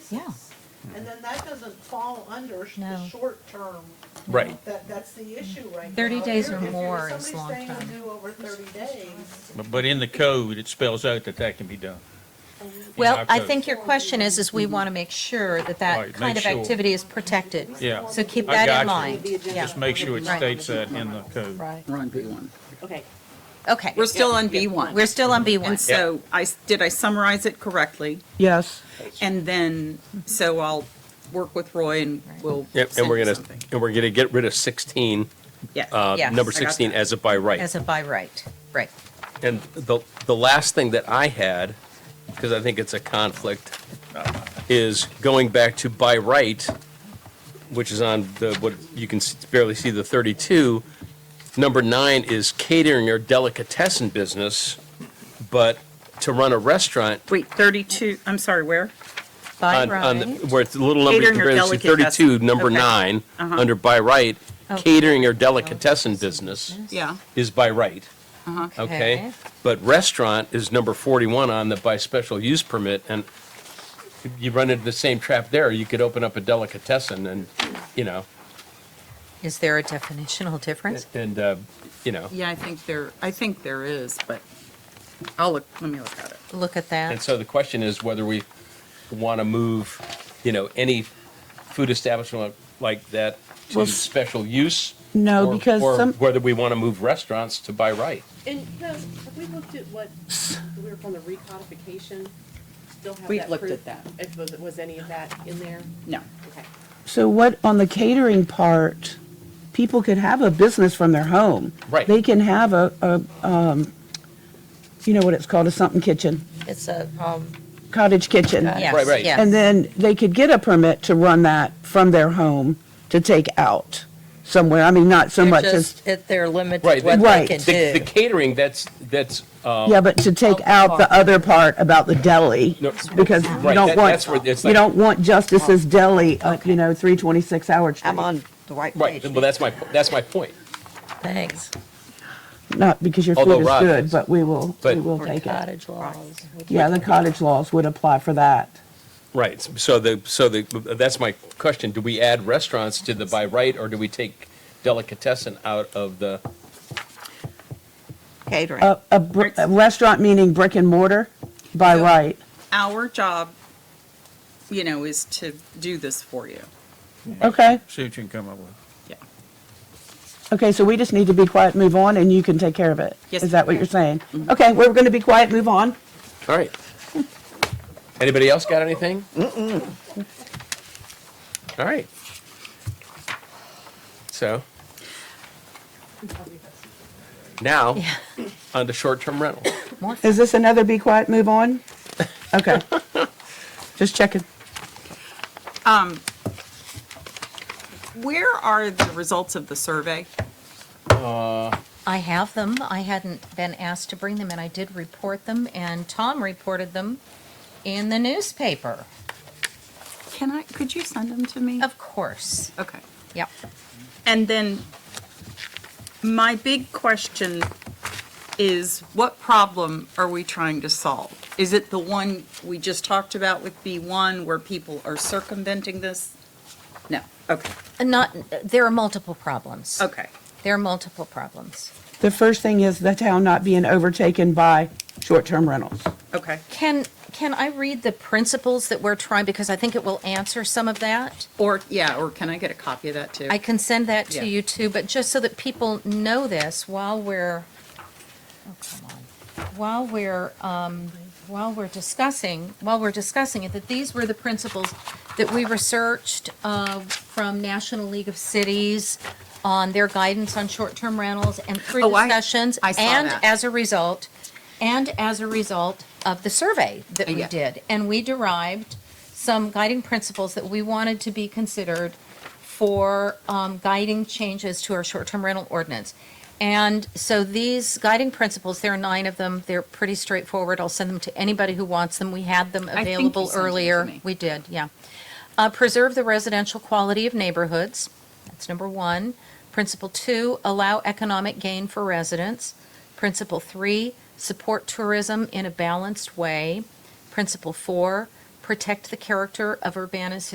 Yeah. basis. And then that doesn't fall under sh- No. the short term. Right. That, that's the issue right now. 30 If days you're- or if you're- more is long Somebody's staying term. with you over thirty days. But, but in the code, it spells out that that can be done. Well, our I code. think your question is, is we Mm-hmm. want to make sure that that Right, kind make of sure. activity is protected. Yeah. So keep I that in got you. mind. Yeah. Just make sure it Right. states that in the code. Right. We're on B1. Okay. Okay. We're still on B1. We're still on B1. And so I, s- did I summarize it correctly? Yes. And then, so I'll work with Roy and we'll Yep, and send we're you gonna, something. and we're gonna get rid of 16, Yeah. uh, Yes. number I got 16 that. as a by right. As a by right. Right. And the, the last thing that I had, because I think it's a conflict, is going back to by right, which is on the, what, you can s- barely see the 32. Number nine is catering or delicatessen business, but to run a restaurant, Wait, 32, I'm sorry, where? By on, on, the- right. where it's a little number you Catering or compare to delicatessen. 32, number Okay. nine, Uh-huh. under by right, Oh. catering or delicatessen business Yeah. is by right, Okay. okay? But restaurant is number 41 on the by special use permit, and you run into the same trap there. You could open up a delicatessen and, you know, Is there a definitional difference? and, uh, you know. Yeah, I think there, I think there is, but I'll look, let me look at it. Look at And that. so the question is whether we want to move, you know, any food establishment like that Well, to s- special use? No, or- because or some- whether we want to move restaurants to by right. And, you know, have we looked at what, we were from the recodification? Still have We've that looked proof? at that. If- Was, was any of that in there? No. Okay. So what, on the catering part, people could have a business from their home. Right. They can have a, a, um, you know what it's called, a something kitchen, It's a, um, cottage kitchen. yes, Right, right. yes. And then they could get a permit to run that from their home to take out somewhere. I mean, not so They're much as, just- it- They're limited Right, what they right. can The the do. catering, that's, that's, uh, yeah, but to Oh, take out the other part about the deli. No, Because you right, don't that- that's where want, it's you like- don't want Oh. Justice's Deli, uh, you know, 326 Howard Street. I'm on the right right, page. well, that's my, that's my point. Thanks. Not because your Although food is Rod good, is. but we will, we But- will Or take it. cottage laws. Yeah, the cottage laws would apply for that. Right, so the, so the, that's my question, do we add restaurants to the by right, or do we take delicatessen out of the? Catering. A, a br- a restaurant meaning brick and mortar by Yeah. right. Our job, you know, is to do this for you. Okay, See what you can come up with. Yeah. okay, so we just need to be quiet, move on, and you can take care of it. Yes, Is that what you're saying? Okay, we're going to be quiet, move on. All right. Anybody else got anything? All right. So. Now, on to short-term rental. Is this another be quiet, move on? Okay. Just checking. Um, Where are the results of the survey? I have them. I hadn't been asked to bring them, and I did report them, and Tom reported them in the newspaper, Can I, could you send them to me? of course. Okay. Yep. And then my big question is what problem are we trying to solve? Is it the one we just talked about with B1 where people are circumventing this? No. Okay. And Not, there are multiple problems. Okay. There are multiple problems. The first thing is the town not being overtaken by short-term rentals. Okay. Can, can I read the principles that we're trying, because I think it will answer some of that? Or, yeah, or can I get a copy of that too? I can send that to Yeah. you too, but just so that people know this while we're, oh, come on, while we're, um, while we're discussing, while we're discussing it, that these were the principles that we researched, uh, from National League of Cities on their guidance on short-term rentals and through Oh, I- discussions. I saw And that. as a result, and as a result of the survey that we Yeah. did. And we derived some guiding principles that we wanted to be considered for um, guiding changes to our short-term rental ordinance. And so these guiding principles, there are nine of them. They're pretty straightforward. I'll send them to anybody who wants them. We had them think you available sent them to earlier. me. We did, yeah. Uh, Preserve the residential quality of neighborhoods. That's number one. Principle two, allow economic gain for residents. Principle three, support tourism in a balanced way. Principle four, protect the character of Urbana's